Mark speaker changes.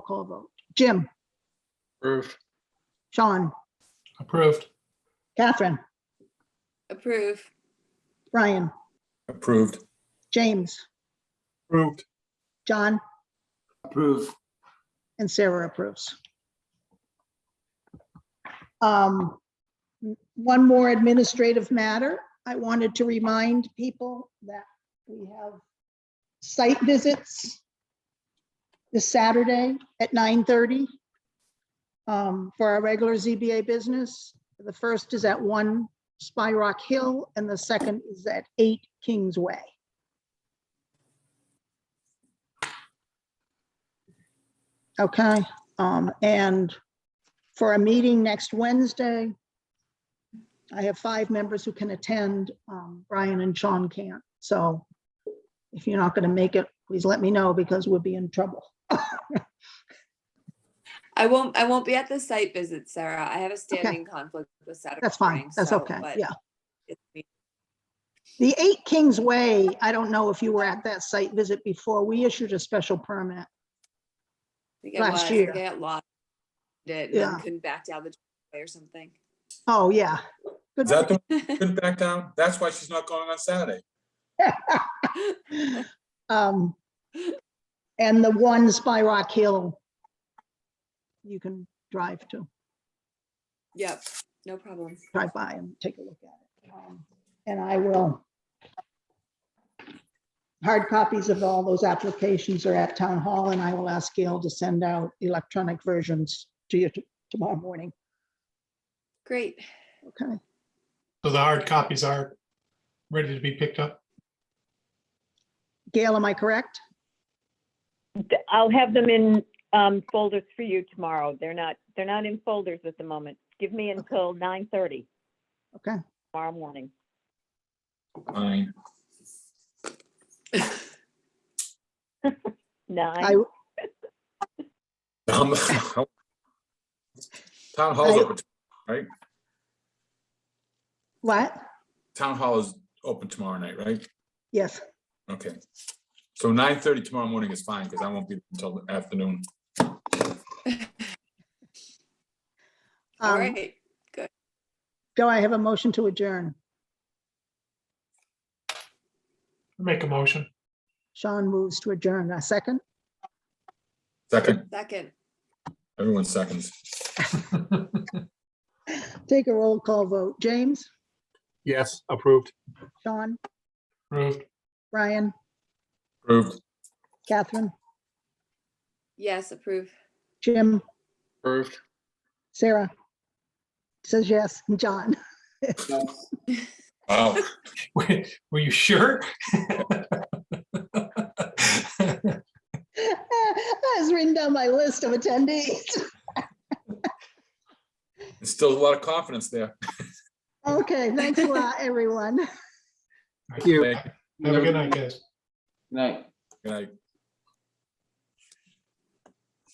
Speaker 1: call vote. Jim,
Speaker 2: Approved.
Speaker 1: Sean,
Speaker 2: Approved.
Speaker 1: Catherine,
Speaker 3: Approve.
Speaker 1: Brian,
Speaker 4: Approved.
Speaker 1: James,
Speaker 2: Approved.
Speaker 1: John,
Speaker 2: Approved.
Speaker 1: and Sarah approves. Um, One more administrative matter. I wanted to remind people that we have site visits this Saturday at 9:30 um, for our regular ZBA business. The first is at 1 Spy Rock Hill, and the second is at 8 Kings Way. Okay, um, and for a meeting next Wednesday, I have five members who can attend, um, Brian and Sean can't, so if you're not gonna make it, please let me know because we'll be in trouble.
Speaker 3: I won't, I won't be at the site visit, Sarah. I have a standing conflict with Saturday.
Speaker 1: That's fine,
Speaker 3: morning,
Speaker 1: that's
Speaker 3: so-
Speaker 1: okay,
Speaker 3: but
Speaker 1: yeah.
Speaker 3: it's-
Speaker 1: The Eight Kings Way, I don't know if you were at that site visit before, we issued a special permit.
Speaker 3: I think I
Speaker 1: Last
Speaker 3: was, I
Speaker 1: year.
Speaker 3: think I got lost. Did, and then
Speaker 1: Yeah.
Speaker 3: couldn't back down the driveway or something.
Speaker 1: Oh, yeah. Good.
Speaker 4: Is that the, couldn't back down? That's why she's not going on Saturday.
Speaker 1: Um, and the one Spy Rock Hill you can drive to.
Speaker 3: Yep, no problem.
Speaker 1: drive by and take a look at it. Um, And I will. Hard copies of all those applications are at town hall and I will ask Gail to send out electronic versions to you t- tomorrow morning.
Speaker 3: Great.
Speaker 1: Okay,
Speaker 2: So the hard copies are ready to be picked up?
Speaker 1: Gail, am I correct?
Speaker 5: th- I'll have them in um, folders for you tomorrow. They're not, they're not in folders at the moment. Give me until 9:30
Speaker 1: Okay,
Speaker 5: tomorrow morning.
Speaker 4: Fine.
Speaker 1: I,
Speaker 5: Nine,
Speaker 4: Um, Town hall's
Speaker 1: I-
Speaker 4: open, t-
Speaker 1: what?
Speaker 4: town hall is open tomorrow night, right?
Speaker 1: Yes,
Speaker 4: Okay. So nine thirty tomorrow morning is fine because I won't be until the afternoon.
Speaker 3: All
Speaker 1: um,
Speaker 3: right.
Speaker 1: do I have a motion to adjourn?
Speaker 2: Make a motion.
Speaker 1: Sean moves to adjourn. A second?
Speaker 4: Second,
Speaker 3: Second.
Speaker 4: everyone seconds.
Speaker 1: Take a roll call vote. James,
Speaker 6: Yes, approved.
Speaker 1: Sean,
Speaker 2: Approved.
Speaker 1: Brian,
Speaker 4: Approved.
Speaker 1: Catherine,
Speaker 3: Yes, approve.
Speaker 1: Jim,
Speaker 2: Approved.
Speaker 1: Sarah. Says yes, and John.
Speaker 4: Wow.
Speaker 2: Were were you sure?
Speaker 1: That was written down my list of attendees.
Speaker 4: There's still a lot of confidence there.
Speaker 1: Okay, thanks a lot, everyone.
Speaker 6: Thank you.
Speaker 4: Thank you.
Speaker 2: Have a good night, guys.
Speaker 4: Good night.